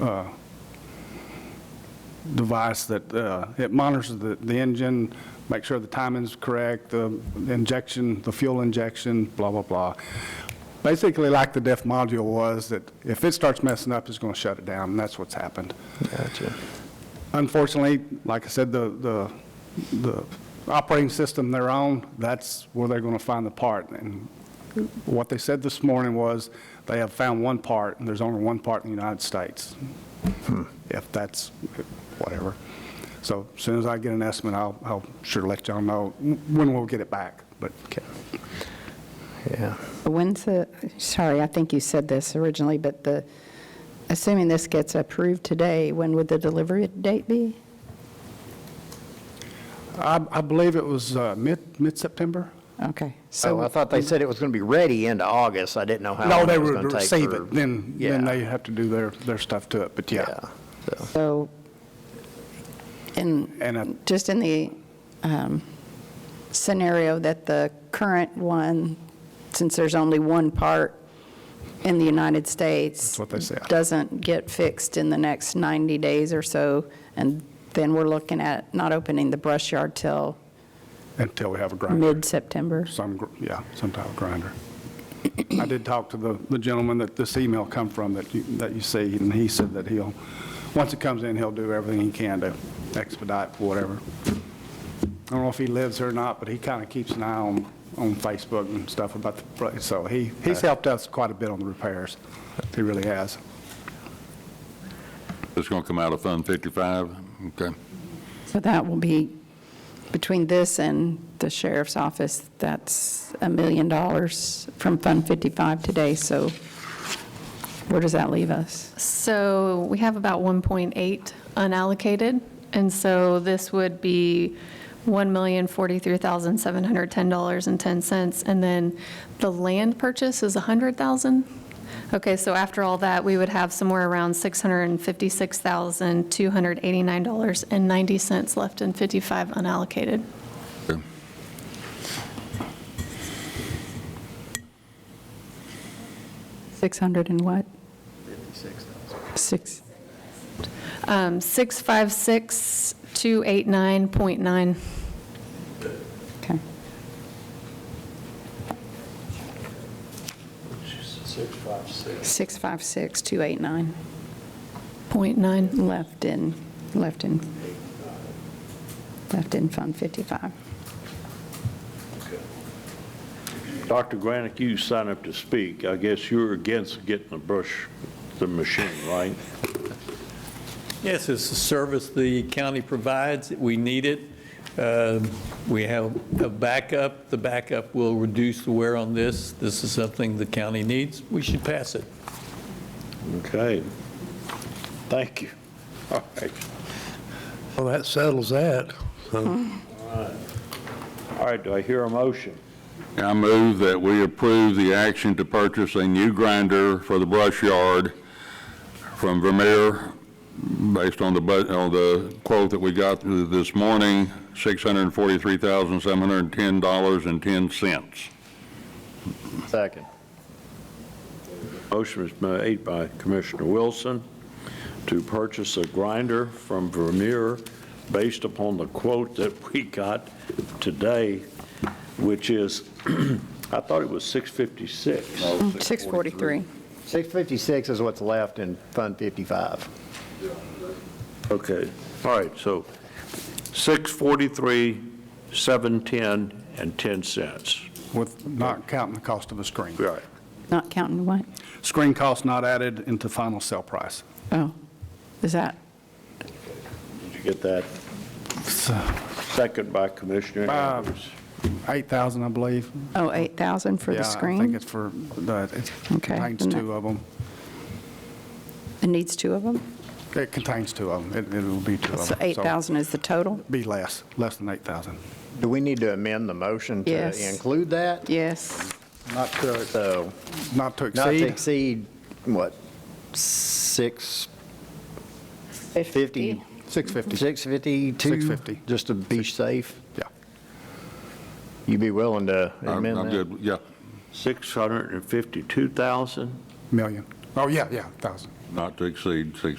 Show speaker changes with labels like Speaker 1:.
Speaker 1: uh, device that, uh, it monitors the the engine, make sure the timing's correct, the injection, the fuel injection, blah, blah, blah. Basically like the DEF module was, that if it starts messing up, it's going to shut it down, and that's what's happened.
Speaker 2: Gotcha.
Speaker 1: Unfortunately, like I said, the, the, the operating system they're on, that's where they're going to find the part. And what they said this morning was, they have found one part, and there's only one part in the United States.
Speaker 2: Hmm.
Speaker 1: If that's, whatever. So as soon as I get an estimate, I'll, I'll sure let y'all know when we'll get it back, but.
Speaker 2: Yeah.
Speaker 3: When's the, sorry, I think you said this originally, but the, assuming this gets approved today, when would the delivery date be?
Speaker 1: I, I believe it was uh, mid, mid-September?
Speaker 3: Okay.
Speaker 2: Oh,
Speaker 3: So
Speaker 2: I thought they said it was going to be ready end of August. I didn't know how
Speaker 1: No,
Speaker 2: long
Speaker 1: they
Speaker 2: it was
Speaker 1: would
Speaker 2: going to take.
Speaker 1: receive
Speaker 2: for-
Speaker 1: it, then, then
Speaker 2: Yeah.
Speaker 1: they have to do their, their stuff to it, but yeah.
Speaker 2: Yeah. So,
Speaker 3: So, in,
Speaker 1: And I
Speaker 3: just in the um, scenario that the current one, since there's only one part in the United States.
Speaker 1: what they said.
Speaker 3: Doesn't get fixed in the next 90 days or so, and then we're looking at not opening the brush yard till
Speaker 1: Until we have a grinder,
Speaker 3: mid-September.
Speaker 1: some, gr- yeah, some type of grinder. I did talk to the the gentleman that this email come from that you, that you see, and he said that he'll, once it comes in, he'll do everything he can to expedite whatever. I don't know if he lives here or not, but he kind of keeps an eye on, on Facebook and stuff about the place, so he, he's helped us quite a bit on the repairs. He really has.
Speaker 4: It's going to come out of Fund 55? Okay.
Speaker 3: So that will be, between this and the sheriff's office, that's a million dollars from Fund 55 today, so where does that leave us?
Speaker 5: So we have about 1.8 unallocated, and so this would be $1,043,710.10, and then the land purchase is 100,000? Okay, so after all that, we would have somewhere around $656,289.90 left in 55 unallocated.
Speaker 4: Okay.
Speaker 3: Six hundred and what? Six,
Speaker 5: Um, 656,289.9.
Speaker 3: okay. Six five six two eight nine
Speaker 5: Point nine.
Speaker 3: left in, left in, left in Fund 55.
Speaker 6: Dr. Granick, you signed up to speak. I guess you're against getting the brush, the machine, right?
Speaker 7: Yes, it's a service the county provides. We need it. Um, We have a backup. The backup will reduce the wear on this. This is something the county needs. We should pass it.
Speaker 6: Okay. Thank you. All right.
Speaker 8: Well, that settles that.
Speaker 6: All right, do I hear a motion?
Speaker 4: I move that we approve the action to purchase a new grinder for the brush yard from Vermeer, based on the, bu- on the quote that we got this morning, $643,710.10.
Speaker 2: Second.
Speaker 6: Motion was made by Commissioner Wilson to purchase a grinder from Vermeer based upon the quote that we got today, which is, I thought it was 656.
Speaker 3: 643.
Speaker 2: 656 is what's left in Fund 55.
Speaker 6: Okay, all right, so 643, 710, and 10 cents.
Speaker 1: With not counting the cost of a screen.
Speaker 6: Right.
Speaker 3: Not counting what?
Speaker 1: Screen cost not added into final sale price.
Speaker 3: Oh, is that,
Speaker 6: Did you get that? Second by Commissioner
Speaker 1: Bob.
Speaker 6: Andrews.
Speaker 1: 8,000, I believe.
Speaker 3: oh, 8,000 for the
Speaker 1: Yeah, I think
Speaker 3: screen?
Speaker 1: it's for, the it
Speaker 3: Okay,
Speaker 1: contains
Speaker 3: then that-
Speaker 1: two of them.
Speaker 3: It needs two of them?
Speaker 1: It contains two of them. It it will be two of them.
Speaker 3: So 8,000 is the total?
Speaker 1: Be less, less than 8,000.
Speaker 2: Do we need to amend the motion
Speaker 3: Yes.
Speaker 2: to include that?
Speaker 3: Yes.
Speaker 2: Not sure. So
Speaker 1: Not to
Speaker 2: not to
Speaker 1: exceed,
Speaker 2: exceed, what, 6? 50?
Speaker 1: 650.
Speaker 2: 652?
Speaker 1: 650.
Speaker 2: Just to be safe?
Speaker 1: yeah.
Speaker 2: You'd be willing to
Speaker 4: I'm-
Speaker 2: amend
Speaker 4: I'm
Speaker 2: that?
Speaker 4: good. Yeah,
Speaker 6: 652,000?
Speaker 1: Million. Oh, yeah, yeah, 1,000.
Speaker 4: not to exceed six.